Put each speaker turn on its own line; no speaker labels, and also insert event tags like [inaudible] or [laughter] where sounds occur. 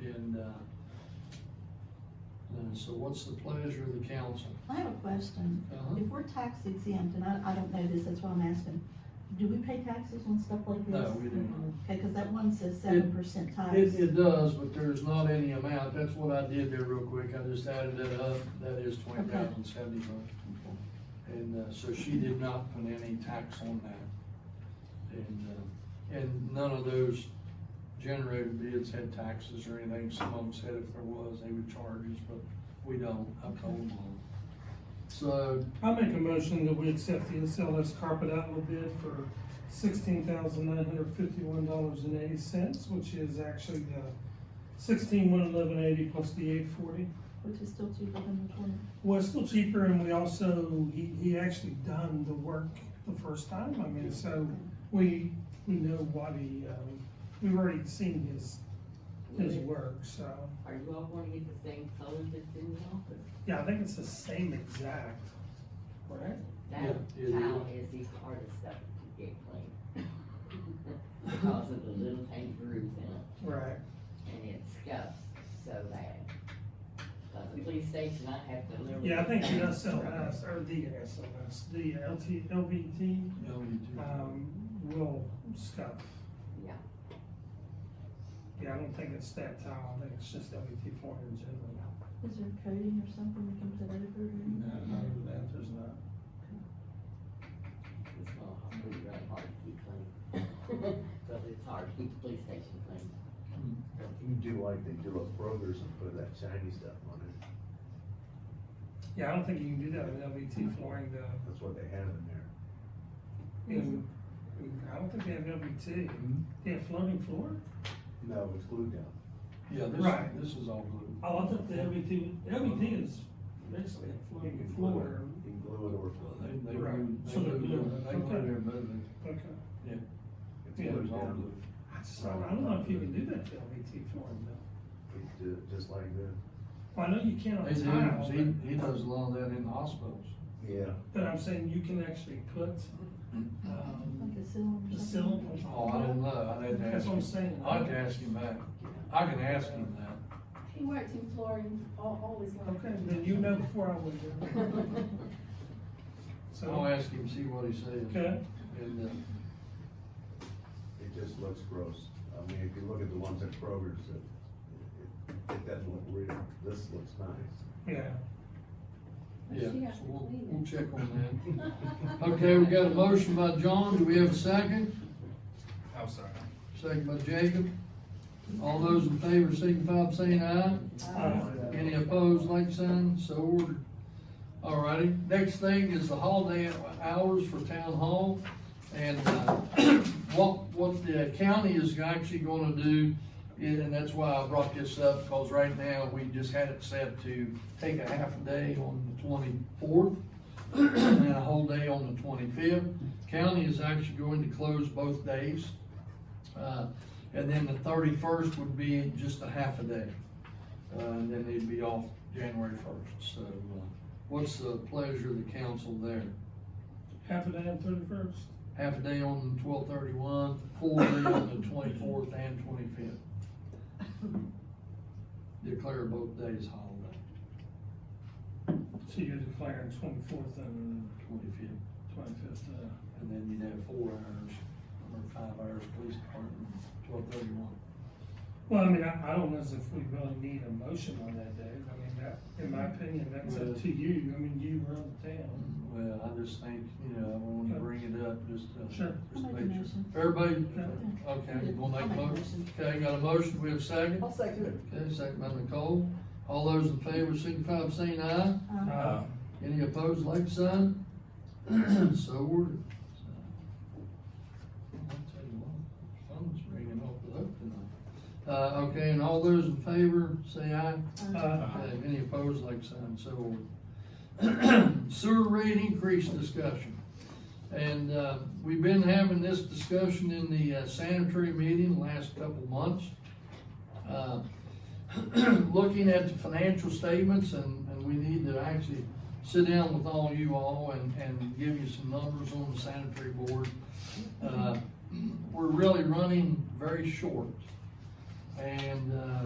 that. uh, And so what's the pleasure of the council?
I have a question.
Uh-huh.
If we're tax exempt, and I, I don't know this, that's why I'm asking, do we pay taxes on stuff like this?
No, we do not.
Okay, cause that one says seven percent
It,
tax.
it does, but there's not any amount, that's what I did there real quick, I just added that up, that is twenty thousand seventy-five. And, uh, so she did not put any tax on that. And, uh, and none of those generated bids had taxes or anything, some of them said if there was, they would charge us, but we don't, I told them. So,
I make a motion that we accept the SLS carpet outlet bid for sixteen thousand nine hundred fifty-one dollars and eighty cents, which is actually the sixteen one eleven eighty plus the eight forty.
Which is still cheaper than the twenty.
Well, it's still cheaper and we also, he, he actually done the work the first time, I mean, so we, we know what he, um, we've already seen his, his work, so.
Are you all going to get the same color that's in the office?
Yeah, I think it's the same exact, right?
That
Yeah, it
tile is the hardest stuff to get clean. Because of the little tiny grooves in it,
Right.
and it scuffs so bad. Because the police station, I have to literally.
Yeah, I think the
[laughs]
SLS, or the SLS, the LT, LVT,
you know, you do.
um, will scuff.
Yeah.
Yeah, I don't think it's that tile, I think it's just LVT four in general.
Is there coding or something that comes out of it?
No, not even that, there's not.
It's gonna be really hard to keep clean. [laughs] Because it's hard to keep the police station clean.
You do like they do at Kroger's and put that shiny stuff on it,
Yeah, I don't think you can do that with LVT flooring though.
that's what they have in there.
And I don't think they have LVT. They have floating floor?
No, it's glued down.
Yeah,
Right.
this, this is all blue.
Oh, I thought the LVT, LVT is basically a
You
floating
can glue it,
floor.
you can glue it or
Well,
float
They,
it.
they,
Right.
moved- they
So they're
moved
blue.
it- they put it in both,
Okay.
It's
Yeah.
it was
glued
all
down.
blue.
I just, don't- I don't know if you can do that to LVT flooring though.
You can do it just like that.
Well, I know you can on
They do,
tile, but-
he, he does a lot of that in the hospitals.
Yeah.
but I'm saying you can actually put, um,
Like a ceiling
the
or
sill
something?
on
Oh, I
top.
didn't know, I'd have to
That's
ask
what I'm
him,
saying.
I'd have to ask him back, I can ask him that.
He worked in flooring all, all his life.
Okay, then you know before I would.
[laughs]
yeah.
I'll
So,
ask him, see what he says.
okay,
And, uh,
It just looks gross. I mean, if you look at the ones at Kroger's, it, it, it doesn't look real. This looks nice.
yeah.
yeah,
She has
so
to
we'll,
clean it.
we'll check on
[laughs]
that. Okay, we got a motion by John, do we have a second?
I'm sorry.
Second by Jacob. All those in favor signify by saying aye.
Uh,
Any opposed, like sign, so ordered. Alrighty, next thing is the holiday hours for town hall. And, uh, [clears throat] what, what the county is actually gonna do, is- and that's why I brought this up, cause right now, we just had it set to take a half a day on the twenty-fourth [clears throat] and a whole day on the twenty-fifth. County is actually going to close both days. Uh, and then the thirty-first would be just a half a day. Uh, and then they'd be off January first, so, uh, what's the pleasure of the council there?
Half a day on thirty-first.
Half a day on the twelve thirty-one, full day on the twenty-fourth and twenty-fifth. Declare both days holiday,
So you're declaring twenty-fourth and
twenty-fifth,
twenty-fifth, uh,
and then you'd have four hours, or five hours, police department, twelve thirty-one.
well, I mean, I, I don't know as if we really need a motion on that day. I mean, that, in my opinion, that's up to you. I mean, you run the town.
Well, I just think, you know, I wanted to bring it up, just, uh.
Sure.
just
I'll
to
make a
make
motion.
sure. Everybody,
Yeah.
okay, you
I'll
gonna make a
make a
motion? Okay, got a motion, we have a second?
I'll second it.
Okay, second by Nicole. All those in favor signify by saying aye.
Um,
Uh,
Any opposed, like sign? [clears throat] So ordered. I'll tell you what, Phone's ringing off the hook tonight. Uh, okay, and all those in favor, say aye.
uh,
Okay, Any opposed, like sign, so ordered. [clears throat] Sewer rate increase discussion. And, uh, we've been having this discussion in the uh, sanitary meeting the last couple months. Uh, [clears throat] Looking at the financial statements and, and we need to actually sit down with all you all and, and give you some numbers on the sanitary board. [clears throat] Uh, We're really running very short. And, uh,